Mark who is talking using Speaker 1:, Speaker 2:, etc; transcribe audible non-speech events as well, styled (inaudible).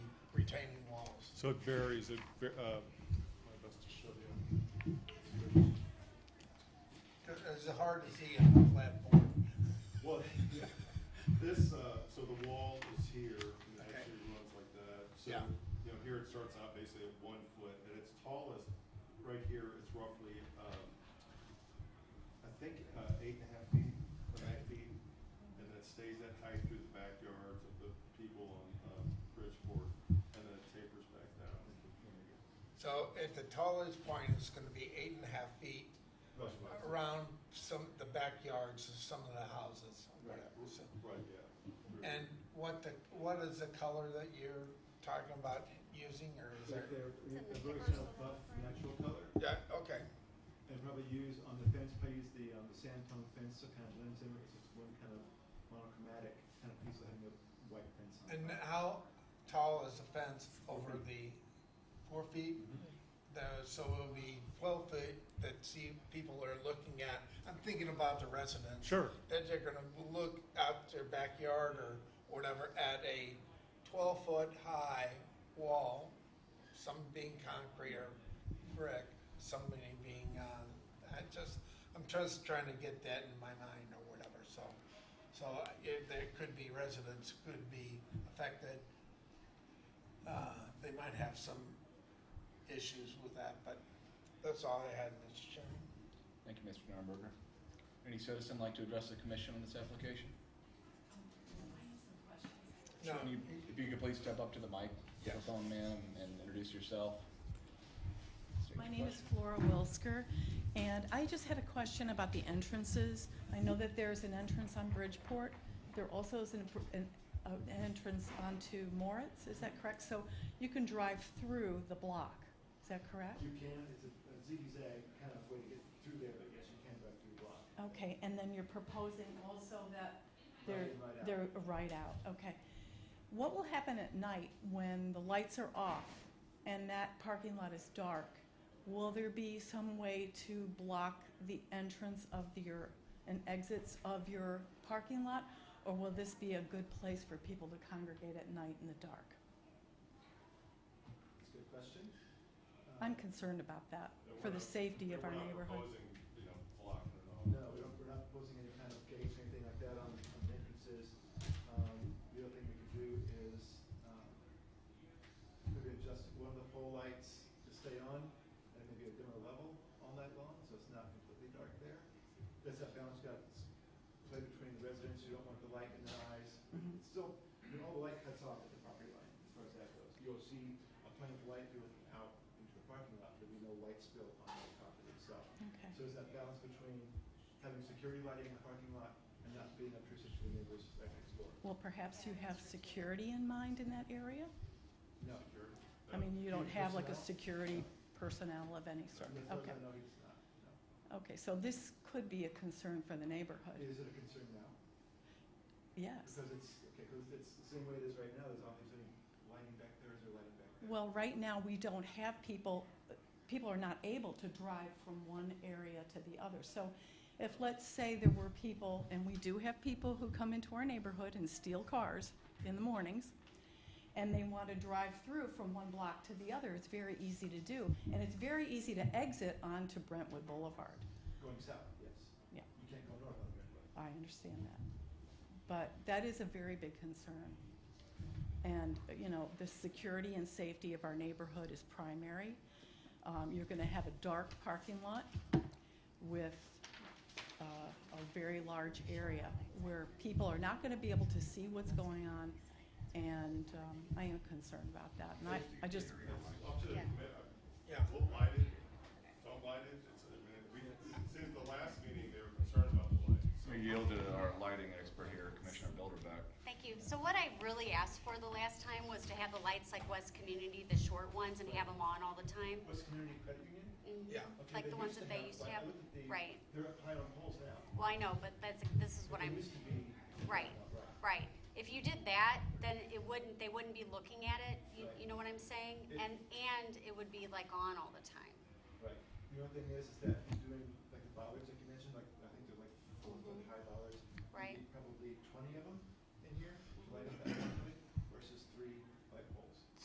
Speaker 1: So it varies, it, va- uh, my best to show you.
Speaker 2: It's hard to see on a flat board.
Speaker 1: Well, (laughs) yeah, this, uh, so the wall is here, and it
Speaker 2: Okay.
Speaker 1: actually runs like that. So,
Speaker 2: Yeah.
Speaker 1: you know, here it starts out basically at one foot, and its tallest, right here, it's roughly, um, I think, uh, eight and a half feet, or nine feet, and that stays that height through the backyards of the people on, um, Bridgeport, and then it tapers back down.
Speaker 2: So at the tallest point, it's gonna be eight and a half feet around some, the backyards of some of the houses, or whatever. so.
Speaker 1: Right, yeah.
Speaker 2: And what the, what is the color that you're talking about using, or is there?
Speaker 3: that they're
Speaker 4: It's in the
Speaker 3: version
Speaker 4: papers,
Speaker 3: of
Speaker 4: the
Speaker 3: buff
Speaker 4: front.
Speaker 3: natural color.
Speaker 2: Yeah, okay,
Speaker 3: And probably use on the fence, probably use the, um, the sand tone fence, so kind of blends in, it's just one kind of monochromatic kind of piece of having a white fence on.
Speaker 2: and
Speaker 3: it.
Speaker 2: how tall is the fence over the four feet? The- so it'll be twelve feet that see, people are looking at, I'm thinking about the residents.
Speaker 1: Sure.
Speaker 2: that they're gonna look out their backyard or whatever at a twelve foot high wall, some being concrete or brick, some being, uh, I just, I'm just trying to get that in my mind or whatever, so. So if there could be residents, could be affected, uh, they might have some issues with that, but that's all I had, Mr. Chairman.
Speaker 5: Thank you, Mr. Nuremberger. Any citizen like to address the commission on this application?
Speaker 2: No.
Speaker 5: Can you- If you could please step up to the mic,
Speaker 2: Yes.
Speaker 5: microphone man, and introduce yourself. State
Speaker 4: My
Speaker 5: your
Speaker 4: name is
Speaker 5: question.
Speaker 4: Flora Wilsker, and I just had a question about the entrances. I know that there's an entrance on Bridgeport. There also is an, an, uh, an entrance onto Moritz, is that correct? So you can drive through the block, is that correct?
Speaker 3: You can, it's a a zigzag kind of way to get through there, but yes, you can drive through the block.
Speaker 4: Okay, and then you're proposing also that they're,
Speaker 3: Right in, right out.
Speaker 4: they're right out, okay. What will happen at night when the lights are off and that parking lot is dark? Will there be some way to block the entrance of your, and exits of your parking lot? Or will this be a good place for people to congregate at night in the dark?
Speaker 3: It's a good question. Um,
Speaker 4: I'm concerned about that,
Speaker 1: No,
Speaker 4: for
Speaker 1: we're
Speaker 4: the
Speaker 1: not-
Speaker 4: safety of
Speaker 1: we're
Speaker 4: our
Speaker 1: not
Speaker 4: neighborhood.
Speaker 1: proposing, you know, blocking it off.
Speaker 3: No, we don't, we're not proposing any kind of gates or anything like that on, on the entrances. Um, the other thing we could do is, um, maybe adjust one of the pole lights to stay on at maybe a dimmer level all night long, so it's not completely dark there. That's that balance you got, s- play between the residents, you don't want the light in their eyes.
Speaker 4: Mhm.
Speaker 3: It's still, you know, all the light cuts off at the property line, as far as that goes. You'll see a plane of light going out into the parking lot, there'll be no light spill on the property itself.
Speaker 4: Okay,
Speaker 3: So there's that balance between having security lighting in the parking lot and not being obtrusive to the neighbors right next door.
Speaker 4: well, perhaps you have security in mind in that area?
Speaker 3: No.
Speaker 1: Security?
Speaker 4: I mean, you don't have like a
Speaker 3: Personnel?
Speaker 4: security personnel of any sort,
Speaker 3: No,
Speaker 4: okay.
Speaker 3: No, it's not, no.
Speaker 4: Okay, so this could be a concern for the neighborhood,
Speaker 3: Is it a concern now?
Speaker 4: yes.
Speaker 3: Because it's, okay, because it's the same way it is right now, there's obviously lighting back there, is there lighting back there?
Speaker 4: Well, right now, we don't have people, people are not able to drive from one area to the other. So if, let's say there were people, and we do have people who come into our neighborhood and steal cars in the mornings, and they want to drive through from one block to the other, it's very easy to do. And it's very easy to exit onto Brentwood Boulevard.
Speaker 3: Going south, yes.
Speaker 4: Mm-hmm. Yeah.
Speaker 3: You can't go north on Redwood.
Speaker 4: I understand that. But that is a very big concern. And, uh, you know, the security and safety of our neighborhood is primary. Um, You're going to have a dark parking lot with uh, a very large area where people are not going to be able to see what's going on, and um, I am concerned about that. And I, I just,
Speaker 1: It's Up to the
Speaker 4: Yeah.
Speaker 1: commi- I-
Speaker 2: Yeah.
Speaker 1: We'll light it, don't light it, it's, I mean, we, since the last meeting, they were concerned about the light. so-
Speaker 5: We yield to our lighting expert here, Commissioner Bilderbeck.
Speaker 6: Thank you. So what I really asked for the last time was to have the lights like West Community, the short ones, and have them on all the time.
Speaker 3: West Community Credit Union?
Speaker 2: Yeah.
Speaker 6: Mhm.
Speaker 3: Okay,
Speaker 6: Like the ones that they used to
Speaker 3: like, I
Speaker 6: have.
Speaker 3: looked at the-
Speaker 6: Right.
Speaker 3: They're up high on poles now.
Speaker 6: Well, I know, but that's, this is what
Speaker 3: They
Speaker 6: I'm,
Speaker 3: used to be-
Speaker 6: Right. right. If you did that, then it wouldn't, they wouldn't be looking at it, you,
Speaker 3: Right.
Speaker 6: you know what I'm saying?
Speaker 3: It-
Speaker 6: And, and it would be like on all the time.
Speaker 3: Right. The only thing is, is that you're doing, like, the bollards, like you mentioned, like, I think they're like four foot high bollards. You
Speaker 6: Right.
Speaker 3: need Probably twenty of them in here, to light up that (coughs) one